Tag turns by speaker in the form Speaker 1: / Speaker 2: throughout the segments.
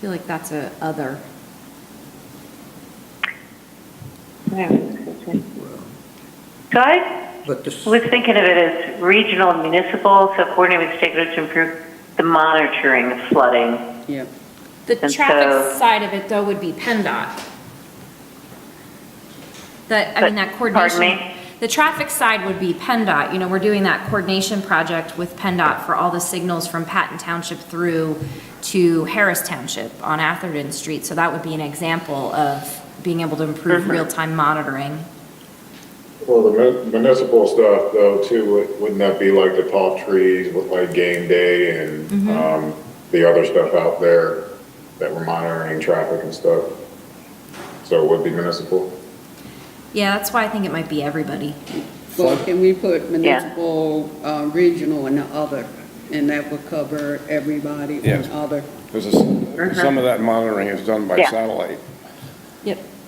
Speaker 1: feel like that's a other.
Speaker 2: I
Speaker 3: But this,
Speaker 2: was thinking of it as regional and municipal, so coordinating with stakeholders to improve the monitoring of flooding.
Speaker 4: Yep.
Speaker 1: The
Speaker 2: And
Speaker 1: traffic
Speaker 2: so-
Speaker 1: side of it, though, would be PennDOT. That, I mean, that
Speaker 2: But- pardon
Speaker 1: coordination.
Speaker 2: me?
Speaker 1: The traffic side would be PennDOT, you know, we're doing that coordination project with PennDOT for all the signals from Patton Township through to Harris Township on Atherton Street, so that would be an example of being able to
Speaker 2: Mm-hmm.
Speaker 1: improve real-time monitoring.
Speaker 5: Well, the mun- municipal stuff though too, would- wouldn't that be like the tall trees with like game day
Speaker 2: Mm-hmm.
Speaker 5: and, um, the other stuff out there that we're monitoring traffic and stuff? So it would be municipal?
Speaker 1: Yeah, that's why I think it might be everybody.
Speaker 4: Well, can we put municipal, uh, regional and other? And that would cover everybody and
Speaker 6: Yes.
Speaker 4: other.
Speaker 6: Because some of that monitoring is done by
Speaker 2: Uh-huh. Yeah.
Speaker 6: satellite.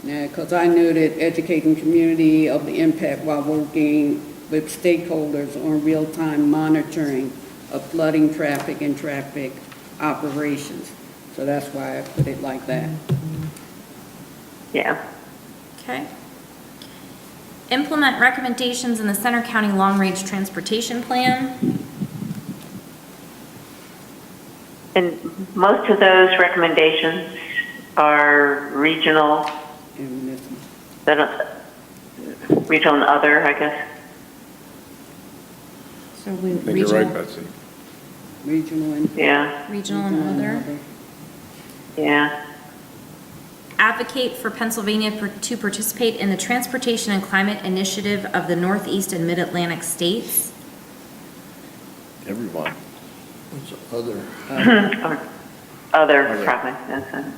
Speaker 4: Because I know that educating community of the impact while working with stakeholders on real-time monitoring of flooding, traffic, and traffic operations. So that's why I put it like that.
Speaker 2: Yeah.
Speaker 1: Okay. Implement recommendations in the Center County Long Range Transportation Plan.
Speaker 2: And most of those recommendations are regional,
Speaker 4: And municipal.
Speaker 2: they don't- regional and other, I guess.
Speaker 1: So we,
Speaker 6: I think you're right,
Speaker 1: regional,
Speaker 6: Betsy.
Speaker 4: Regional and.
Speaker 2: Yeah,
Speaker 1: regional and other.
Speaker 2: yeah.
Speaker 1: Advocate for Pennsylvania per- to participate in the Transportation and Climate Initiative of the Northeast and Mid-Atlantic States.
Speaker 6: Everyone.
Speaker 3: what's the other?
Speaker 2: Or Other
Speaker 6: Other.
Speaker 2: provinces.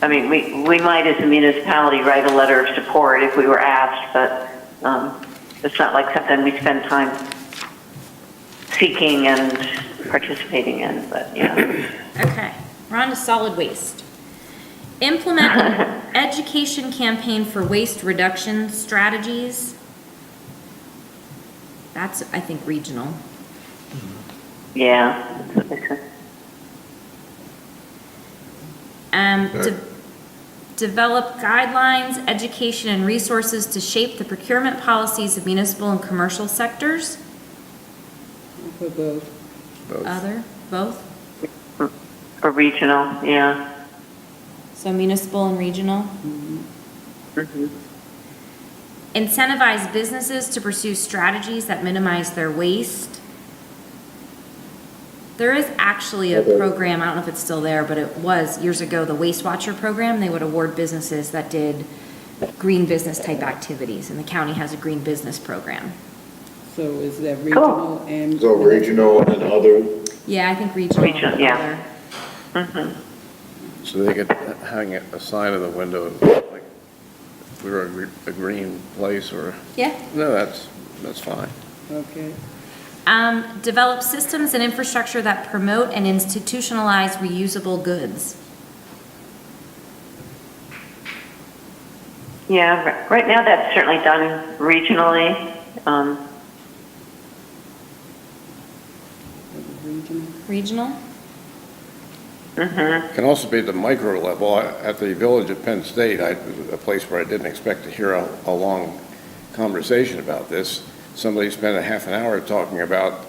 Speaker 2: I mean, we, we might as a municipality write a letter of support if we were asked, but um, it's not like something we spend time seeking and participating in, but, yeah.
Speaker 1: Okay, we're on to solid waste. Implement an education campaign for waste reduction strategies. That's, I think, regional.
Speaker 2: Yeah. that's what they said.
Speaker 1: Um, de- develop guidelines, education, and resources to shape the procurement policies of municipal and commercial sectors.
Speaker 4: For both.
Speaker 2: Uh,
Speaker 1: Other, both,
Speaker 2: Or regional, yeah.
Speaker 1: so municipal and regional. Incentivize businesses to pursue strategies that minimize their waste. There is actually a
Speaker 5: Okay.
Speaker 1: program, I don't know if it's still there, but it was years ago, the Waste Watcher program. They would award businesses that did green business type activities, and the county has a green business program.
Speaker 4: So is that regional and?
Speaker 5: So regional and other,
Speaker 1: Yeah, I think regional. and
Speaker 2: Regional, yeah.
Speaker 1: other.
Speaker 6: So they could hang a sign in the window, like, we were a gre- a green place or,
Speaker 1: Yeah.
Speaker 6: no, that's, that's fine.
Speaker 4: Okay.
Speaker 1: Um, develop systems and infrastructure that promote and institutionalize reusable goods.
Speaker 2: Yeah, ri- right now that's certainly done regionally. Um,
Speaker 4: Regional.
Speaker 1: Regional?
Speaker 6: Can also be at the micro level. I- At the Village of Penn State, I, a place where I didn't expect to hear a, a long conversation about this, somebody spent a half an hour talking about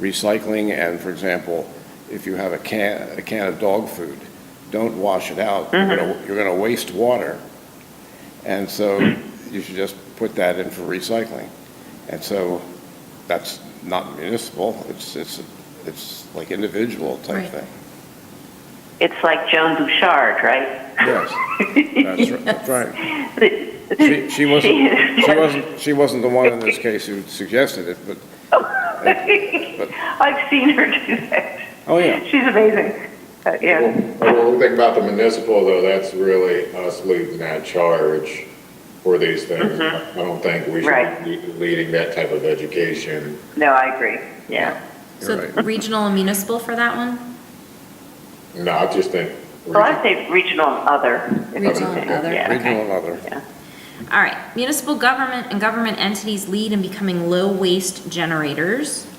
Speaker 6: recycling and, for example, if you have a can, a can of dog food, don't wash it out. You're gonna, you're gonna waste water. And so you should just put that in for recycling. And so that's not municipal. It's, it's, it's like individual
Speaker 1: Right.
Speaker 6: type thing.
Speaker 2: It's like Joan Bouchard, right?
Speaker 6: Yes. That's right, that's right. She, she
Speaker 2: She-
Speaker 6: wasn't, she wasn't, she wasn't the one in this case who suggested it, but,
Speaker 2: I've seen her do that.
Speaker 6: oh, yeah.
Speaker 2: She's amazing. Uh,
Speaker 5: well,
Speaker 2: yeah.
Speaker 5: well, the thing about the municipal though, that's really us leading that charge for these things. I don't think we should
Speaker 2: Mm-hmm. Right.
Speaker 5: be leading that type of education.
Speaker 2: No, I agree. Yeah.
Speaker 1: So
Speaker 6: You're right.
Speaker 1: regional and municipal for that one?
Speaker 5: No, I just think.
Speaker 2: Well, I'd say regional and other. if
Speaker 1: Regional and
Speaker 2: anything.
Speaker 1: other.
Speaker 2: Yeah, okay.
Speaker 6: Regional and other.
Speaker 2: Yeah.
Speaker 1: All right, municipal government and government entities lead in becoming low waste generators.